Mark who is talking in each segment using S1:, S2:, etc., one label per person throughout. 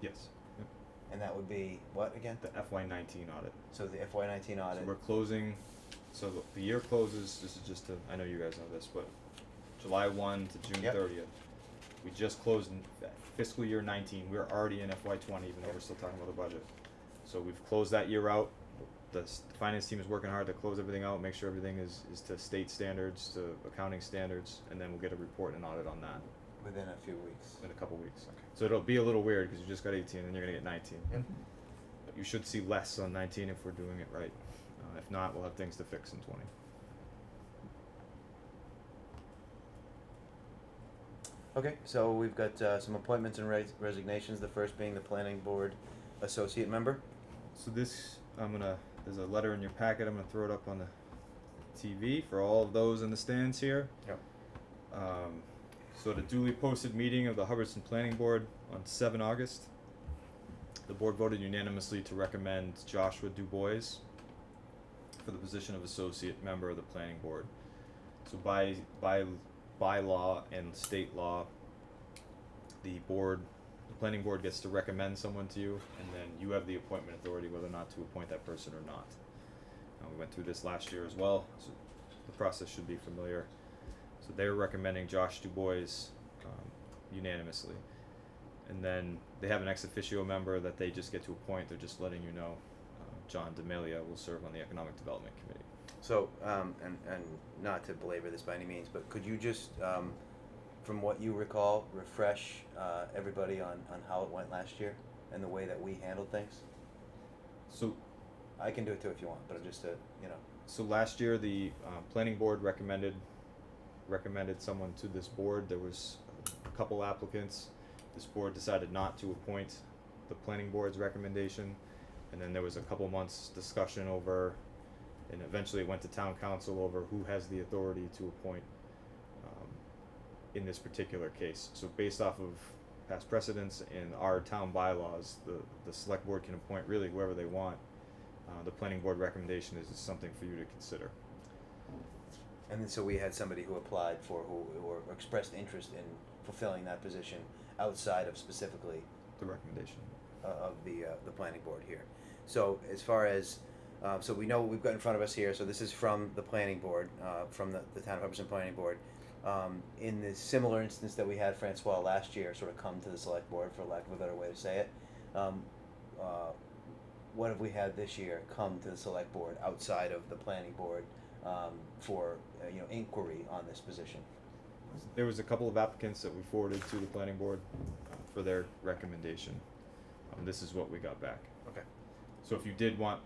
S1: Yes. Yep.
S2: And that would be what again?
S1: The FY nineteen audit.
S2: So the FY nineteen
S1: So
S2: audit.
S1: we're closing, so the- the year closes, this is just to, I know you guys know this, but July one to June
S2: Yep.
S1: thirtieth. We just closed in f- fiscal year nineteen, we're already in FY twenty, even though we're still talking about the budget. So we've closed that year out, the s- the finance team is working hard to close everything out, make sure everything is, is to state standards, to accounting standards, and then we'll get a report and audit on that
S2: Within a few weeks.
S1: in a couple weeks.
S2: Okay.
S1: So it'll be a little weird, cause you just got eighteen and you're gonna get nineteen. But you should see less on 19 if we're doing it right. Uh, if not, we'll have things to fix in 20.
S2: Okay, so we've got uh, some appointments and res- resignations. The first being the planning board associate member.
S1: So this, I'm gonna. There's a letter in your packet. I'm gonna throw it up on the TV for all of those in the stands here.
S2: Yep.
S1: Um, so at a duly posted meeting of the Hubbardston Planning Board on seven August, the board voted unanimously to recommend Joshua Dubois for the position of associate member of the planning board. So by by by law and state law, the board the planning board gets to recommend someone to you, and then you have the appointment authority whether or not to appoint that person or not. Uh, we went through this last year as well, so the process should be familiar. So they're recommending Josh Dubois um, unanimously. And then they have an ex officio member that they just get to appoint. They're just letting you know. Uh, John D'Amelia will serve on the Economic Development Committee.
S2: So, um, and and not to belabor this by any means, but could you just, um, from what you recall, refresh uh, everybody on on how it went last year and the way that we handled things?
S1: So
S2: I can do it too if you want, but just to you know.
S1: So last year, the uh, planning board recommended recommended someone to this board. There was a couple applicants. This board decided not to appoint the planning board's recommendation, and then there was a couple months discussion over, and eventually it went to town council over who has the authority to appoint um, in this particular case. So based off of past precedents and our town bylaws, the the select board can appoint really whoever they want. Uh, the planning board recommendation is just something for you to consider.
S2: And then so we had somebody who applied for who or expressed interest in fulfilling that position outside of specifically
S1: The recommendation.
S2: uh, of the, uh, the planning board here. So as far as, uh, so we know what we've got in front of us here, so this is from the planning board, uh, from the, the town of Hubbardson Planning Board. Um, in the similar instance that we had Francois last year, sort of come to the select board, for lack of a better way to say it, um, uh, what have we had this year come to the select board outside of the planning board, um, for, uh, you know, inquiry on this position?
S1: There was a couple of applicants that we forwarded to the planning board uh, for their recommendation. Um, this is what we got back.
S2: Okay.
S1: So if you did want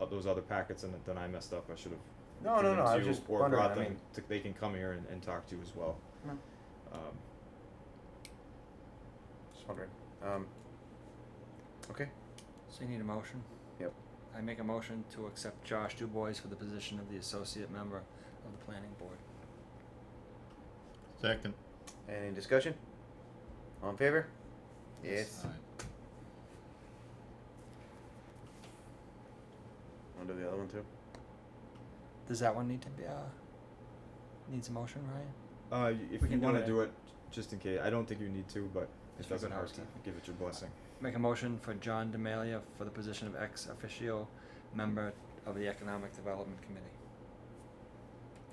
S1: o- those other packets and then I messed up, I should have.
S2: No, no,
S1: given
S2: no, I was
S1: to you
S2: just
S1: or
S2: wondering,
S1: brought
S2: I
S1: them
S2: mean-
S1: to- They can come here and, and talk to you as well.
S2: No.
S1: Um,
S2: Just wondering. Um, okay.
S3: So you need a motion?
S2: Yep.
S3: I make a motion to accept Josh Dubois for the position of the associate member of the planning board.
S4: Second.
S2: Any discussion? All in favor?
S3: Yes.
S2: Yes. Want to do the other one too?
S3: Does that one need to be, uh, needs a motion, Ryan?
S1: Uh, y- if you
S3: We can do
S1: wanna
S3: it.
S1: do it, just in case, I don't think you need to, but it
S3: Just for
S1: doesn't
S3: good
S1: hurt to
S3: housekeeping.
S1: give it your blessing.
S3: Make a motion for John Demalia for the position of ex officio member of the Economic Development Committee.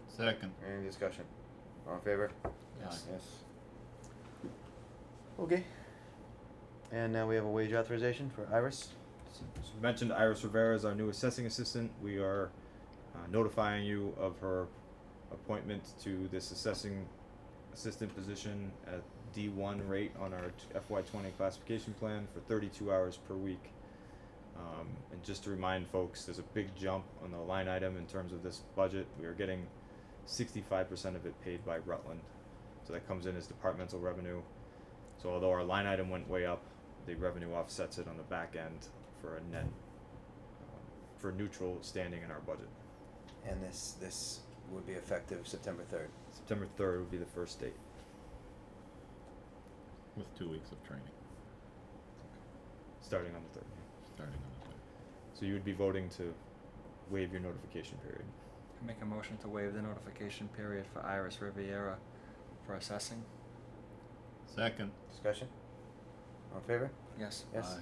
S4: Second.
S2: Any discussion? All in favor?
S3: Yes.
S2: Yes. Okay. And now we have a wage authorization for Iris.
S1: So we mentioned Iris Rivera is our new assessing assistant. We are uh, notifying you of her appointment to this assessing assistant position at D1 rate on our t- FY20 classification plan for 32 hours per week. Um, and just to remind folks, there's a big jump on the line item in terms of this budget. We are getting 65% of it paid by Rutland. So that comes in as departmental revenue. So although our line item went way up, the revenue offsets it on the back end for a net, um, for neutral standing in our budget.
S2: And this, this would be effective September third.
S1: September third would be the first date.
S4: With two weeks of training,
S1: starting on the third.
S4: starting on the third.
S1: So you would be voting to waive your notification period.
S3: I Make a motion to waive the notification period for Iris Riviera for assessing.
S4: Second.
S2: Discussion? All in favor?
S5: Yes.
S3: Yes.